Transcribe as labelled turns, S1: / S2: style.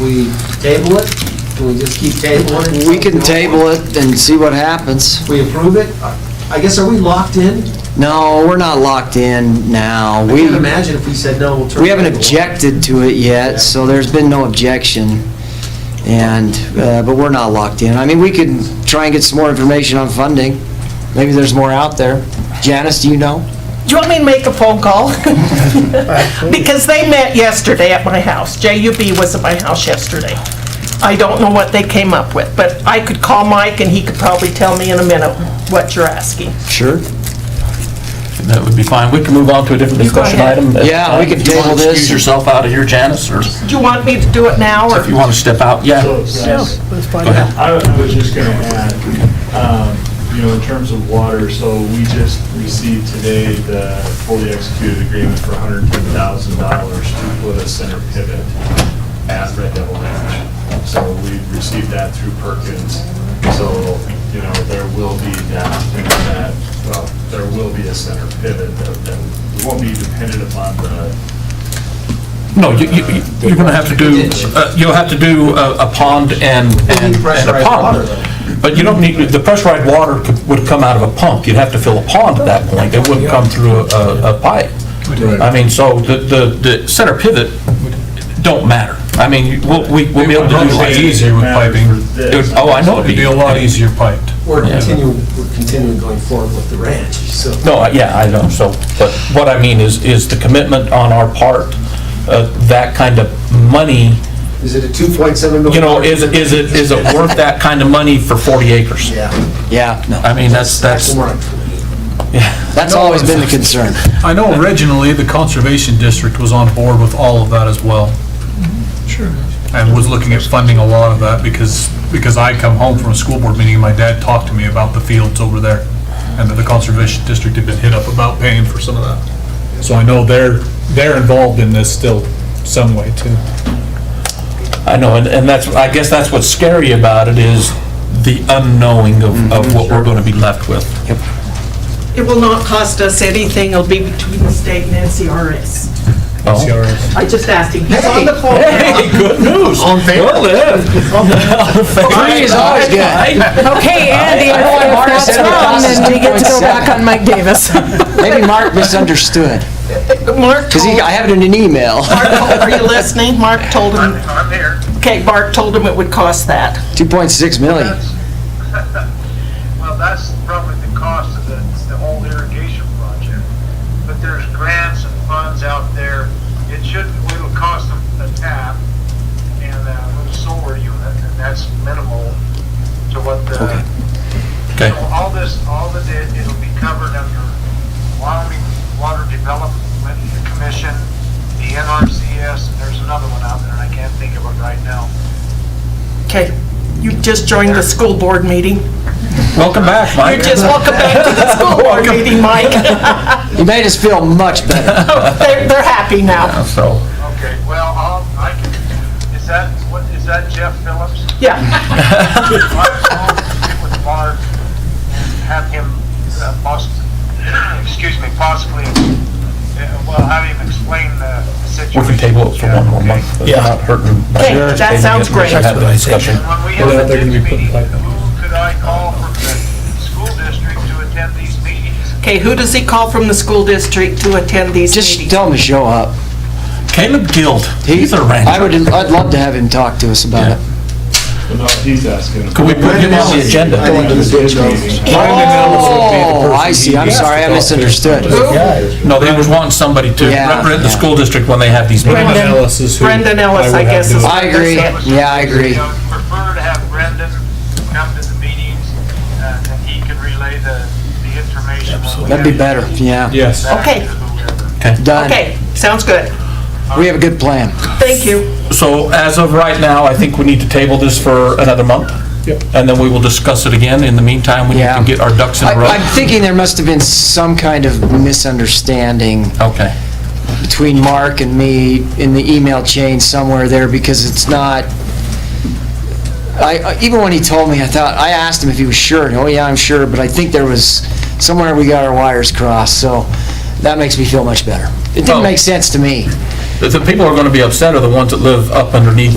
S1: We table it? Do we just keep tabling it?
S2: We can table it and see what happens.
S1: We approve it? I- I guess, are we locked in?
S2: No, we're not locked in now.
S1: I
S2: We,
S1: can't imagine if we said no, we'll turn.
S2: we haven't
S1: it over.
S2: objected to it
S1: Yeah.
S2: yet, so there's been no objection. And, uh, but we're not locked in. I mean, we could try and get some more information on funding. Maybe there's more out there. Janice, do you know?
S3: Do you want me to make a phone call? Because they met yesterday at my house. JUB was at my house yesterday. I don't know what they came up with, but I could call Mike and he could probably tell me in a minute what you're asking.
S2: Sure.
S4: That would be fine. We can move on to a different
S3: You go
S4: discussion
S3: ahead.
S4: item.
S2: Yeah, we can
S4: If you wanna
S2: table this.
S4: Excuse yourself out of here, Janice, or
S3: Do you want me to do it now or?
S4: if you want to step out, yeah. Go
S3: No.
S4: ahead.
S5: I I was just going to add, um, you know, in terms of water, so we just received today the fully executed agreement for $110,000 to put a center pivot at Red Devil Ranch. So we received that through Perkins, so, you know, there will be that, you know, that, well, there will be a center pivot that that won't be dependent upon the
S4: No, you, you, you- you're going to have to do, uh, you'll have to do a a pond and, and and a
S1: pressurized water,
S4: pond. But you don't need, the pressurized water could- would come out of a pump. You'd have to fill a pond at that point. It wouldn't come through a, a pipe. I mean, so the, the, the center pivot don't matter. I mean, we'll, we- we'll be able to do
S6: It'd be easier with piping.
S4: It would- Oh, I know it'd be.
S6: It'd be a lot easier piped.
S1: We're continuing, we're continuing going forward with the ranch, so.
S4: No, I- yeah, I know, so, but what I mean is, is the commitment on our part, uh, that kind of money,
S1: Is it a 2.7 million?
S4: you know, is, is it, is it worth that kind of money for 40 acres?
S1: Yeah.
S2: Yeah, no.
S4: I mean, that's, that's,
S1: Actually, we're on 20.
S2: That's always been the concern.
S6: I know originally, the Conservation District was on board with all of that as well. Sure. And was looking at funding a lot of that because, because I come home from a school board meeting and my dad talked to me about the fields over there and that the Conservation District had been hit up about paying for some of that. So I know they're, they're involved in this still some way too.
S4: I know, and, and that's, I guess that's what's scary about it is the unknowing of, of what we're gonna be left with.
S3: It will not cost us anything. It'll be between the state and NCRS.
S4: Oh.
S6: CRS.
S3: I just asked him. He's on the phone now.
S4: Hey, good news. On favor. Well,
S2: Three is always good.
S7: Okay, Andy, if if that's wrong, then we get to go back on Mike Davis.
S2: Maybe Mark misunderstood,
S3: Mark
S2: because
S3: told-
S2: I have it in an email,
S3: Mark told- are you listening? Mark told him. I'm here. Okay, Mark told him it would cost that.
S2: 2.6 million.
S8: That's- Well, that's probably the cost of the, the whole irrigation project. But there's grants and funds out there. It shouldn't, it'll cost them a tap and a little solar unit, and that's minimal to what the,
S4: Okay.
S8: so all this, all of it, it'll be covered under Wyoming Water Development Commission, the NRCS, and there's another one out there, and I can't think of it right now.
S3: Okay, you just joined the school board meeting.
S4: Welcome back, Mike.
S3: You're just welcome back to the school board meeting, Mike.
S2: You made us feel much better.
S3: They're, they're happy now.
S4: So,
S8: Okay, well, I'll, I can, is that, what, is that Jeff Phillips?
S3: Yeah,
S8: I'll get with Mark and have him, uh, poss, excuse me, possibly, uh, well, have him explain the
S4: we
S8: situation.
S4: can table it for one more month. It's not hurting.
S3: Okay, that
S4: Tabling it,
S3: sounds
S4: we should
S3: great.
S4: Have the discussion.
S8: And When we have the next meeting, who could I call from the school district to attend these meetings?
S3: okay, who does he call from the school district to attend these
S2: Just
S3: meetings?
S2: tell him to show up.
S4: Caleb Guild,
S2: He-
S4: he's a
S2: I would,
S4: rancher.
S2: I'd love to have him talk to us about it.
S5: No, he's asking.
S4: Could we put him on the agenda?
S1: I think it's-
S2: Oh, I see, I'm sorry, I misunderstood.
S4: No, they was wanting somebody to
S2: Yeah,
S4: represent the
S2: yeah.
S4: school district when they have these meetings.
S3: Brendan-
S6: Ellis is who
S3: Brendan Ellis,
S6: would
S3: I
S6: have
S3: guess,
S6: do
S3: is
S6: it.
S2: I agree, yeah, I agree.
S8: You know, uh, Prefer to have Brendan come to the meetings, uh, and he can relay the, the information. when we
S2: That'd be
S8: have-
S2: better, yeah.
S6: Yes.
S8: back to
S3: Okay.
S8: whoever.
S2: Done.
S3: Okay, sounds good.
S2: We have a good plan.
S3: Thank you.
S4: So as of right now, I think we need to table this for another month.
S6: Yep.
S4: And then we will discuss it again. In the meantime, we need
S2: Yeah.
S4: to get our ducks in
S2: I-
S4: a row.
S2: I'm thinking there must have been some kind of misunderstanding
S4: Okay.
S2: between Mark and me in the email chain somewhere there, because it's not, I, I- even when he told me, I thought, I asked him if he was sure, and, oh yeah, I'm sure, but I think there was, somewhere we got our wires crossed, so that makes me feel much better. It
S4: Oh.
S2: didn't make sense to me.
S4: The- The people who are going to be upset are the ones that live up underneath